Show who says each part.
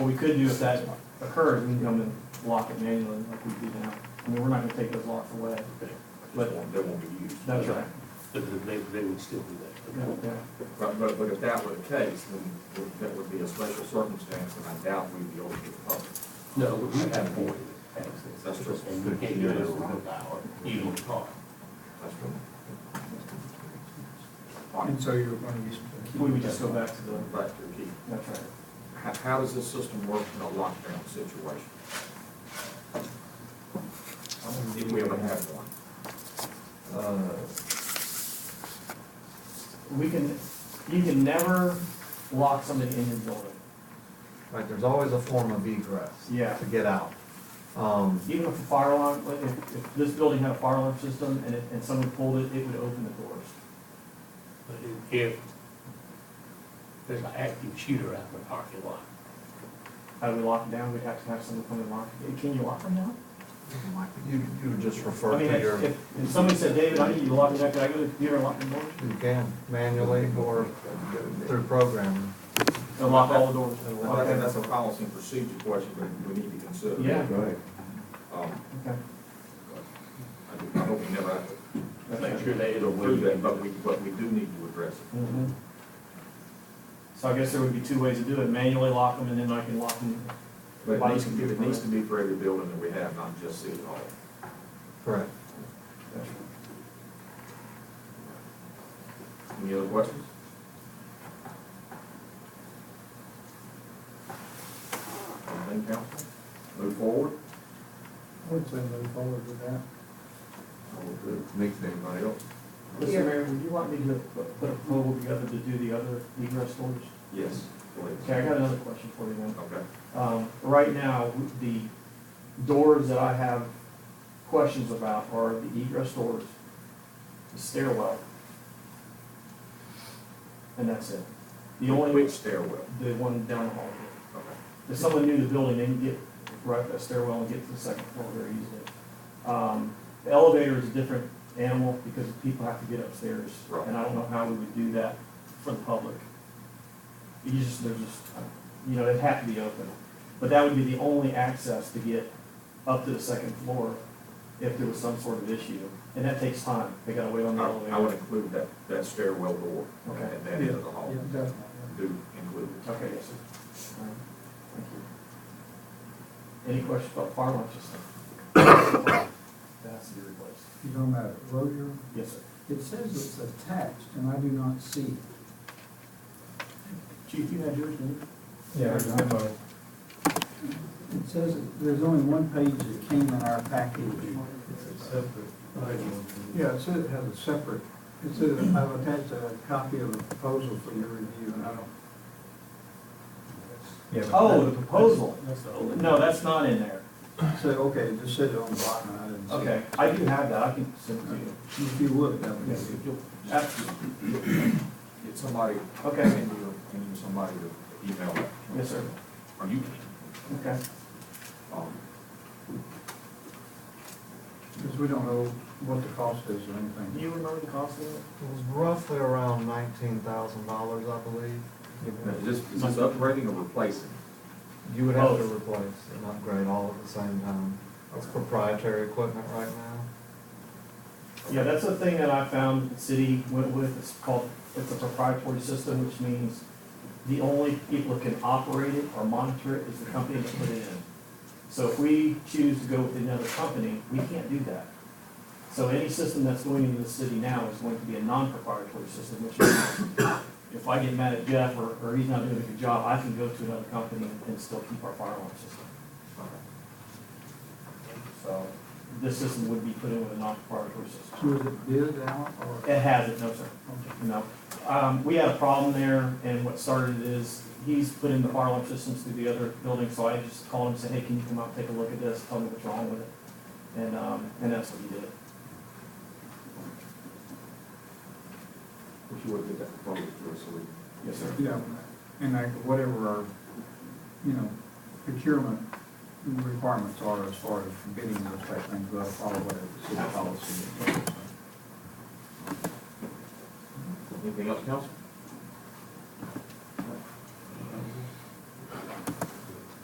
Speaker 1: we could do if that occurs, we can come and lock it manually like we do now. I mean, we're not gonna take those locks away.
Speaker 2: That won't, that won't be used.
Speaker 1: That's right.
Speaker 3: But then they, they would still do that.
Speaker 1: Yeah, yeah.
Speaker 2: But, but, but if that were the case, then would- that would be a special circumstance, and I doubt we'd be able to public.
Speaker 3: No, we have more access.
Speaker 2: That's true.
Speaker 3: And you can't do it around the hour, even on the car.
Speaker 2: That's true.
Speaker 4: And so you're going to use.
Speaker 1: We would just go back to the,
Speaker 2: Back to the key.
Speaker 1: that's right.
Speaker 2: How, how does this system work in a lockdown situation? If we ever have one?
Speaker 5: Uh,
Speaker 1: We can, you can never lock somebody in your building,
Speaker 5: Right, there's always a form of egress.
Speaker 1: Yeah.
Speaker 5: To get out. Um,
Speaker 1: even if a fire alarm, like, if, if this building had a fire alarm system and it, and someone pulled it, it would open the doors.
Speaker 3: But if- if there's an active shooter out in the parking lot,
Speaker 1: How do we lock it down? We'd have to have someone come and lock it. Can you lock them down?
Speaker 5: You, you would just refer
Speaker 1: I mean,
Speaker 5: to your,
Speaker 1: if,
Speaker 5: you
Speaker 1: if if somebody said, David, I need you to lock me down, can I go to the computer and lock the doors?
Speaker 5: can manually or through programming.
Speaker 1: And lock all the doors.
Speaker 2: I think that's a policy and procedure question, but we need to consider.
Speaker 1: Yeah.
Speaker 5: Right.
Speaker 2: Um,
Speaker 1: Okay.
Speaker 2: I I hope we never have to
Speaker 3: make sure they.
Speaker 2: do that, but we, but we do need to address it.
Speaker 1: Mhm. So I guess there would be two ways to do it, manually lock them and then I can lock them.
Speaker 2: But it
Speaker 1: by
Speaker 2: needs to be, it
Speaker 1: computer.
Speaker 2: needs to be for every building that we have, not just City Hall.
Speaker 5: Correct.
Speaker 2: Any other questions? Anything, council? Move forward?
Speaker 4: I would say move forward with that.
Speaker 5: Next thing,
Speaker 2: Anybody else?
Speaker 1: Mr. Mayor, would you want me to put- put a proposal together to do the other egress doors?
Speaker 2: Yes, please.
Speaker 1: Okay, I got another question for you then.
Speaker 2: Okay.
Speaker 1: Um, right now, the doors that I have questions about are the egress doors, the stairwell. And that's it. The only,
Speaker 2: Which stairwell?
Speaker 1: the one down the hall.
Speaker 2: Okay.
Speaker 1: If someone knew the building, they can get right up that stairwell and get to the second floor very easily. Um, the elevator is a different animal because people have to get upstairs.
Speaker 2: Right.
Speaker 1: And I don't know how we would do that for the public. You just, they're just, you know, it'd have to be open. But that would be the only access to get up to the second floor if there was some sort of issue. And that takes time. They gotta wait on the
Speaker 2: I I would
Speaker 1: elevator.
Speaker 2: include that, that stairwell door
Speaker 1: Okay.
Speaker 2: at that end of the hall.
Speaker 4: Yeah, definitely.
Speaker 2: Do include it.
Speaker 1: Okay, yes, sir. All right. Thank you. Any questions about fire alarm system? That's to be replaced.
Speaker 4: You're talking about Rozier?
Speaker 1: Yes, sir.
Speaker 4: It says it's attached, and I do not see it.
Speaker 1: Chief, you had yours, didn't
Speaker 4: Yeah, It says, it- there's only one page that came in our package. Yeah, it says it has a separate, it says, I've attached a copy of the proposal for your review, and I don't.
Speaker 1: you? Oh, the proposal. No, that's not in there.
Speaker 4: So, okay, it just said it on the bottom, and I didn't see it.
Speaker 1: Okay, I do have that. I can send it to you.
Speaker 4: If you would, that would be
Speaker 1: Yes,
Speaker 4: good.
Speaker 1: if you'll- ab-
Speaker 2: Get somebody,
Speaker 1: Okay.
Speaker 2: send you, send you somebody to email that.
Speaker 1: Yes, sir.
Speaker 2: Or you
Speaker 1: Okay.
Speaker 2: um,
Speaker 4: Because we don't know what the cost is
Speaker 1: Do
Speaker 4: or anything.
Speaker 1: you remember the cost of it?
Speaker 5: It was roughly around nineteen thousand dollars, I believe.
Speaker 2: Is this, is this upgrading or replacing?
Speaker 5: You would have to
Speaker 1: Both.
Speaker 5: replace and upgrade all at the same time. It's proprietary equipment right now.
Speaker 1: Yeah, that's a thing that I found the city went with, it's called, it's a proprietary system, which means the only people that can operate it or monitor it is the company that put it in. So if we choose to go with another company, we can't do that. So any system that's going into the city now is going to be a non-proprietary system, which means if I get mad at Jeff or, or he's not doing a good job, I can go to another company and still keep our fire alarm system. So this system would be put in with a non-proprietary system.
Speaker 4: So is it bid out or?
Speaker 1: It hasn't, no, sir. No. Um, we had a problem there, and what started it is, he's put in the fire alarm systems through the other building, so I just called him and said, hey, can you come out and take a look at this, tell me what's wrong with it? And, um, and that's what he did.
Speaker 2: If you would get that proposal to us, so we.
Speaker 1: Yes, sir.
Speaker 4: Yeah, and like whatever our, you know, procurement requirements are as far as bidding those type of things, we'll follow whatever city policy. is.
Speaker 2: Anything else, council?